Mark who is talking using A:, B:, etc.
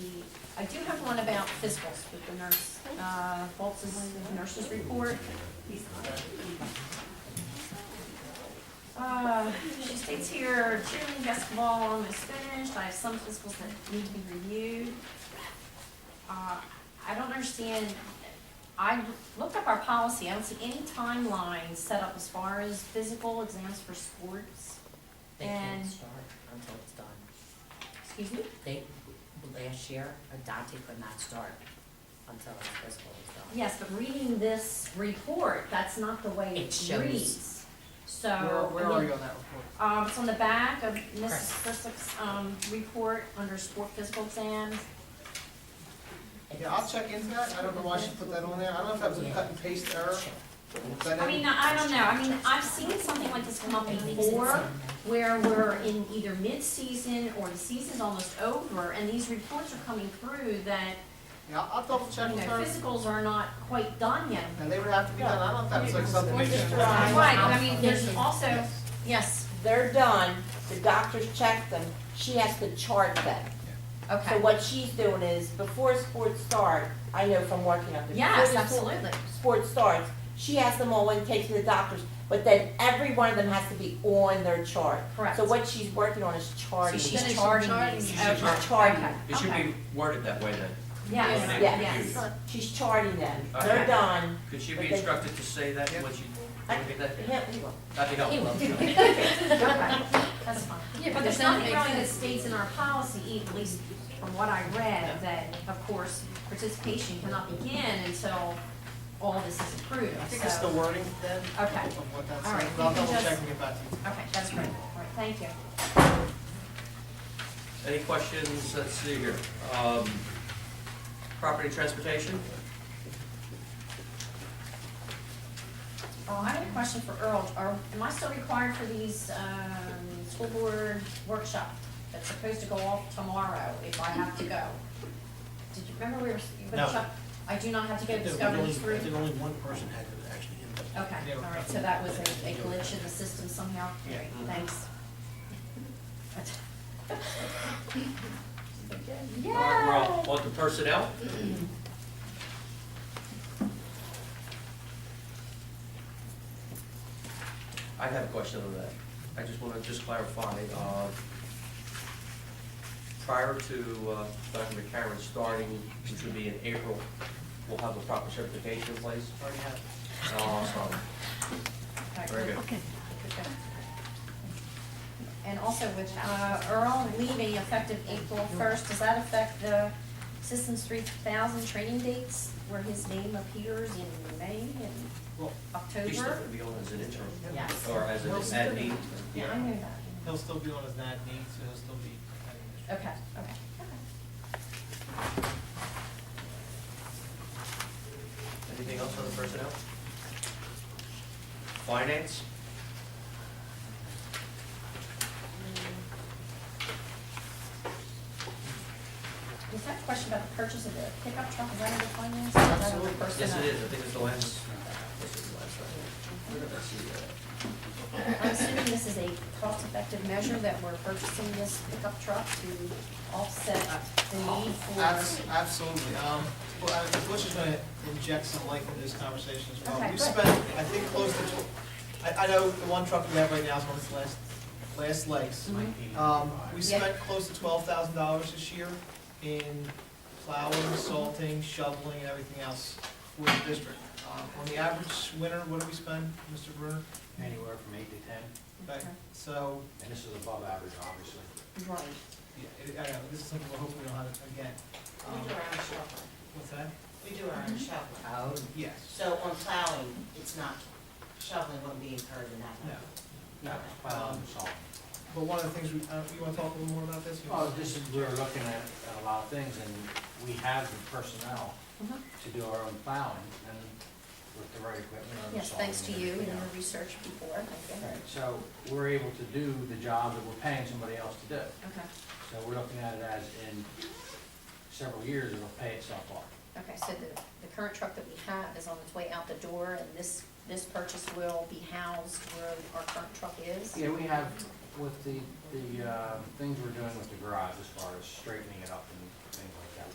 A: I do have one about physicals with the nurse, uh, Bolz's nurse's report. Uh, she states here, cheerleading basketball almost finished, I have some physicals that need to be reviewed. Uh, I don't understand, I looked up our policy, I don't see any timeline set up as far as physical exams for sports.
B: They can't
A: And-
B: start until it's done.
A: Excuse me?
B: They, last year, Dante could not start until his physical was done.
A: Yes, but reading this report, that's not the way
B: It
A: it
B: shows.
A: reads. So,
C: Where, where are
A: I
C: you
A: mean,
C: on that report?
A: um, it's on the back of
B: Correct.
A: Mrs. Christoph's, um, report under sport physical exams.
B: It
C: Yeah, I'll
B: is-
C: check into that, I don't know why she put that on there, I don't know if that was a cut and paste error.
B: Check.
C: but that
A: I mean, I don't know, I mean, I've seen something like this come up
B: It makes it
A: before,
B: sound like-
A: where we're in either mid-season or the season's almost over, and these reports are coming through that,
C: Yeah, I'll- I'll double
A: you
C: check
A: know,
C: with her,
A: physicals are not quite done yet.
C: and they would have to be done, I don't know if that was like something. they should-
D: Right.
A: Right, but I mean, there's also,
C: Yes.
A: yes,
D: They're done, the doctors check them, she has to chart them. So
A: okay,
D: what she's doing is, before sports start, I know from working up there.
A: yes,
D: before the sport-
A: absolutely.
D: Sports starts, she has them all and takes to the doctors, but then every one of them has to be on their chart.
A: Correct.
D: So what she's working on is charting.
A: So she's charting these.
E: She's charting.
A: Okay,
D: Charting.
A: okay,
E: It should
A: okay.
E: be worded that way then.
A: Yes,
E: Yes.
A: yes.
E: Yes.
D: She's charting them,
E: Okay.
D: they're done.
E: Could she be
D: Okay.
E: instructed to say that when she, when we get that?
D: Yeah, we will.
E: That'd be helpful.
A: Okay, That's fine.
F: Yeah,
A: But there's nothing really that states in our policy, e, at least from what I read, that of course, participation cannot begin until all this is approved,
C: I think it's the
A: so.
C: wording then,
A: Okay,
C: of what that's,
A: All right,
C: but I'll
A: you can
C: double check
A: just-
C: and get back to you.
A: okay, that's great, all right, thank you.
E: Any questions? Let's see here. Um, Property transportation?
A: Oh, I have a question for Earl, are, am I still required for these, um, school board workshop that's supposed to go off tomorrow if I have to go? Did you remember we were, you were
G: No.
A: Chuck, I do not have to go to
G: There was
A: Discovery
G: only-
A: Group?
G: I think only one person had it actually in the.
A: Okay, all right, so that was a a glitch in the system somehow?
G: Yeah. Mm-hmm.
A: Great, Thanks.
E: All right, we're
A: Yeah.
E: all- On to personnel? I have a question on that. I just want to just clarify, uh, prior to uh, Dr. McCarron starting, which would be in April, we'll have a proper certification in place. Uh,
C: Already have it.
E: Awesome. Very good.
A: And also with uh, Earl leaving effective April first, does that affect the Systems three thousand training dates where his name appears in May and
C: Well,
E: He's
A: October?
E: definitely be on as an intern,
A: Yes.
E: or as an admin.
A: Yeah, I knew that.
C: He'll still be on his NAD needs, so he'll still be. having this.
A: Okay, okay, okay.
E: Anything else on the personnel? Finance?
A: Is that a question about the purchase of the pickup truck, is that under finance? Is that under
C: Absolutely.
E: Yes,
A: personnel?
E: it is, I think it's the last, this is the last one. Let's see, uh,
A: I'm assuming this is a cost-effective measure that we're purchasing this pickup truck to offset the need
C: Abs-
A: for.
C: Absolutely, um, well, I- Bush is gonna inject some life into this conversation as well.
A: Okay,
C: We've
A: good.
C: spent, I think, close to, tw- I, I know the one truck we have right now is on its last, last legs.
A: Mhm.
E: uh,
C: Um, we
A: Yeah.
C: spent close to twelve thousand dollars this year in plowing, salting, shoveling, and everything else for the district. Um, on the average winter, what do we spend, Mr. Bruner?
G: Anywhere from eight to ten,
C: Right, so,
G: and this is above average, obviously.
A: Right.
C: yeah, it- I know, this is something we'll hopefully don't have again. Um,
H: We do our own shoveling,
C: What's that?
H: we do
A: Mm-hmm.
H: our own shoveling,
B: Oh,
C: Yes,
H: so on plowing, it's not, shoveling wouldn't be incurred in that.
C: no.
H: No.
G: Well, it's all-
C: Um, But one of the things we, uh, you wanna talk a little more about this?
G: Well, this is, we're looking at, at a lot of things, and we have the personnel
A: Mhm.
G: to do our own plowing, and with the right equipment, our own
A: Yes, thanks to
G: salt
A: you and
G: everything
A: your
G: else.
A: research before, thank you.
G: Right, so we're able to do the job that we're paying somebody else to do.
A: Okay,
G: So we're looking at it as in several years, it'll pay itself off.
A: okay, so the, the current truck that we have is on its way out the door, and this, this purchase will be housed where our current truck is?
G: Yeah, we have with the, the, uh, things we're doing with the garage as far as straightening it up and things